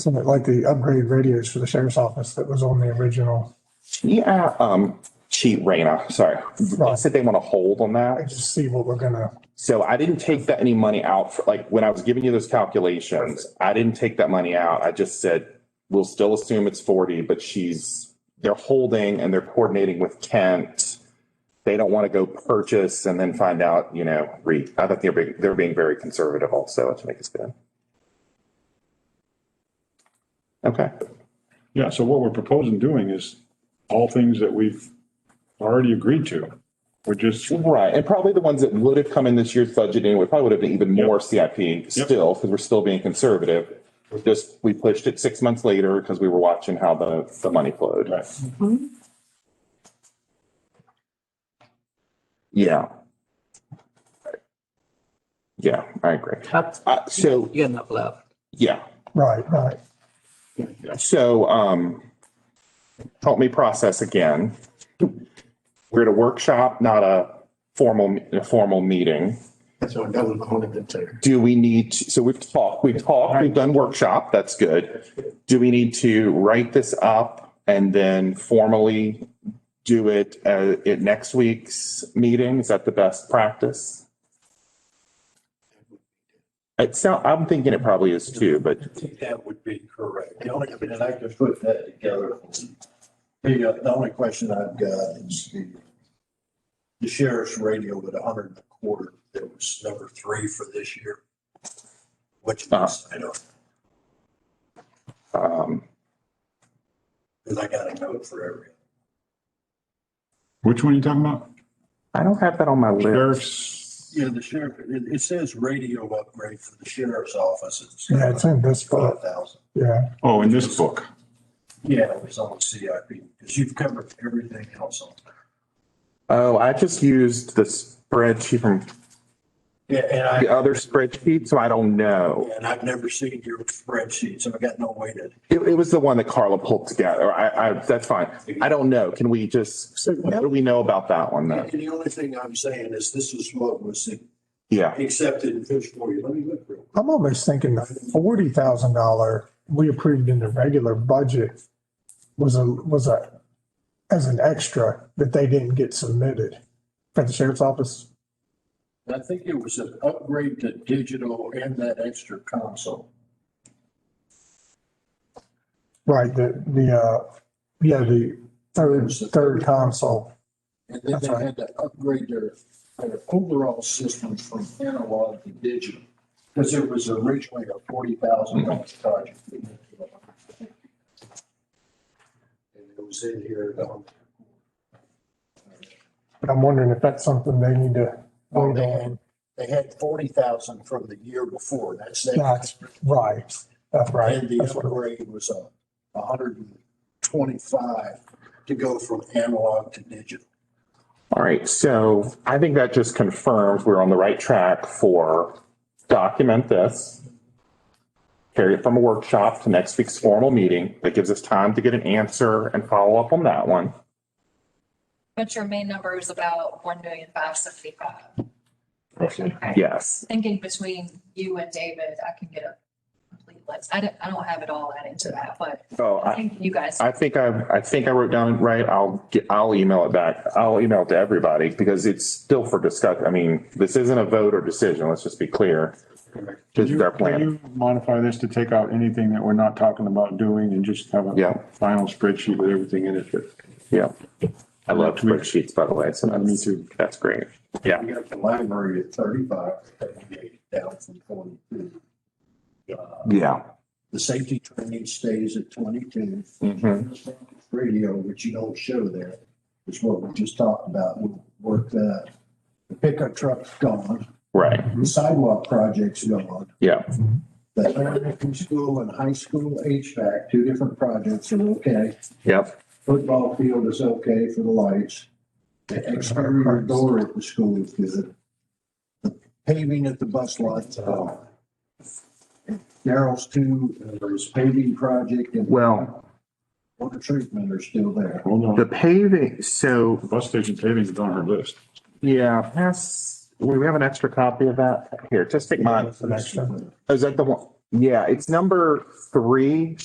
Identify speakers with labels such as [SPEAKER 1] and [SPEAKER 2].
[SPEAKER 1] Something like the upgrade radios for the sheriff's office that was on the original.
[SPEAKER 2] Yeah, um, cheat Raina, sorry. They said they want to hold on
[SPEAKER 1] I
[SPEAKER 2] that.
[SPEAKER 1] just see what we're gonna,
[SPEAKER 2] So I didn't take that any money out for, like, when I was giving you those calculations, I didn't take that money out. I just said, we'll still assume it's forty, but she's, they're holding and they're coordinating with Kent. They don't want to go purchase and then find out, you know, re, I think they're, being- they're being very conservative also to make it spin. Okay.
[SPEAKER 3] Yeah, so what we're proposing doing is all things that we've already agreed to. We're just,
[SPEAKER 2] Right, and probably the ones that would have come in this year's budget anyway, probably would have been even more CIP still, because we're still being conservative. We're Just, we pushed it six months later because we were watching how the, the money flowed.
[SPEAKER 3] right,
[SPEAKER 2] Yeah. Yeah, I agree.
[SPEAKER 4] That's,
[SPEAKER 2] Uh, so,
[SPEAKER 4] you enough left.
[SPEAKER 2] yeah,
[SPEAKER 1] right, right.
[SPEAKER 2] so, um, help me process again. We're at a workshop, not a formal, a formal meeting.
[SPEAKER 5] So that was one of the two.
[SPEAKER 2] Do we need, to- so we've talked, we've talked, we've done workshop, that's good. Do we need to write this up and then formally do it uh, at next week's meeting? Is that the best practice? It sound, I'm thinking it probably is too, but
[SPEAKER 5] That would be correct. The only, and I could put that together. The, uh, the only question I've got is the the sheriff's radio at a hundred and a quarter, that was number three for this year. Which is, I don't,
[SPEAKER 2] um,
[SPEAKER 5] because I got a note for every.
[SPEAKER 3] which one are you talking about?
[SPEAKER 2] I don't have that on my list.
[SPEAKER 3] Sheriff's,
[SPEAKER 5] Yeah, the sheriff, it, it says radio upgrade for the sheriff's office. It's
[SPEAKER 1] Yeah, it's in this
[SPEAKER 5] Twelve
[SPEAKER 1] book,
[SPEAKER 5] thousand.
[SPEAKER 1] yeah.
[SPEAKER 3] oh, in this book.
[SPEAKER 5] Yeah, it was on CIP, because you've covered everything else on there.
[SPEAKER 2] Oh, I just used the spreadsheet from
[SPEAKER 5] Yeah, and I.
[SPEAKER 2] the other spreadsheet, so I don't know.
[SPEAKER 5] And I've never seen your spreadsheet, so I got no way to.
[SPEAKER 2] It, it was the one that Carla pulled together. I, I, that's fine. I don't know. Can we just, what do we know about that one then?
[SPEAKER 5] And the only thing I'm saying is this is what was
[SPEAKER 2] Yeah.
[SPEAKER 5] accepted in fish for you. Let me look real.
[SPEAKER 1] I'm almost thinking the forty thousand dollar we approved in the regular budget was a, was a, as an extra that they didn't get submitted for the sheriff's office.
[SPEAKER 5] I think it was an upgrade to digital and that extra console.
[SPEAKER 1] Right, the, the, uh, yeah, the third,
[SPEAKER 5] There's the-
[SPEAKER 1] third console.
[SPEAKER 5] And then
[SPEAKER 1] That's
[SPEAKER 5] they
[SPEAKER 1] right.
[SPEAKER 5] had to upgrade their, their overall system from analog to digital. Because it was originally a forty thousand dollar project. And it was in here. um,
[SPEAKER 1] But I'm wondering if that's something they need to
[SPEAKER 5] Oh,
[SPEAKER 1] wait
[SPEAKER 5] they
[SPEAKER 1] on.
[SPEAKER 5] had, they had forty thousand from the year before, that's
[SPEAKER 1] That's
[SPEAKER 5] that.
[SPEAKER 1] right. That's right.
[SPEAKER 5] And the
[SPEAKER 1] That's what-
[SPEAKER 5] upgrade was a, a hundred and twenty-five to go from analog to digital.
[SPEAKER 2] All right. So I think that just confirms we're on the right track for document this. Carry it from a workshop to next week's formal meeting. That gives us time to get an answer and follow up on that one.
[SPEAKER 6] But your main number is about one million five seventy-five. Okay.
[SPEAKER 2] Yes.
[SPEAKER 6] Thinking between you and David, I can get a complete list. I don't, I don't have it all added to that, but
[SPEAKER 2] So
[SPEAKER 6] I
[SPEAKER 2] I,
[SPEAKER 6] think you guys,
[SPEAKER 2] I think I, I think I wrote down it right. I'll get, I'll email it back. I'll email it to everybody because it's still for discuss. I mean, this isn't a vote or decision. Let's just be clear. This is our
[SPEAKER 3] Can
[SPEAKER 2] plan.
[SPEAKER 3] you modify this to take out anything that we're not talking about doing and just have
[SPEAKER 2] Yeah.
[SPEAKER 3] a final spreadsheet with everything in it? But
[SPEAKER 2] Yeah. I love
[SPEAKER 3] Me-
[SPEAKER 2] spreadsheets, by the way. So
[SPEAKER 3] Me
[SPEAKER 2] that's,
[SPEAKER 3] too.
[SPEAKER 2] that's great. Yeah.
[SPEAKER 5] We got the library at thirty-five, down from forty-two. Uh,
[SPEAKER 2] Yeah.
[SPEAKER 5] The safety training stays at twenty-two.
[SPEAKER 2] Mhm.
[SPEAKER 5] Radio, which you don't show there, is what we just talked about, we'll work that. The pickup truck's gone,
[SPEAKER 2] Right.
[SPEAKER 1] Mhm.
[SPEAKER 5] the sidewalk project's gone.
[SPEAKER 2] Yeah.
[SPEAKER 5] The elementary school and high school HVAC, two different projects
[SPEAKER 1] Mhm.
[SPEAKER 5] are okay.
[SPEAKER 2] Yep.
[SPEAKER 5] Football field is okay for the lights. The exterior door at the school is good. The Paving at the bus lot's on. Daryl's two, uh, there's paving project and
[SPEAKER 2] Well,
[SPEAKER 5] water treatment are still there.
[SPEAKER 3] Hold on,
[SPEAKER 2] the
[SPEAKER 3] the
[SPEAKER 2] paving, so
[SPEAKER 3] bus station paving is on our list.
[SPEAKER 2] yeah, pass, we we have an extra copy of that here. Just take mine.
[SPEAKER 1] That's an extra.
[SPEAKER 2] Is that the one? Yeah, it's number three.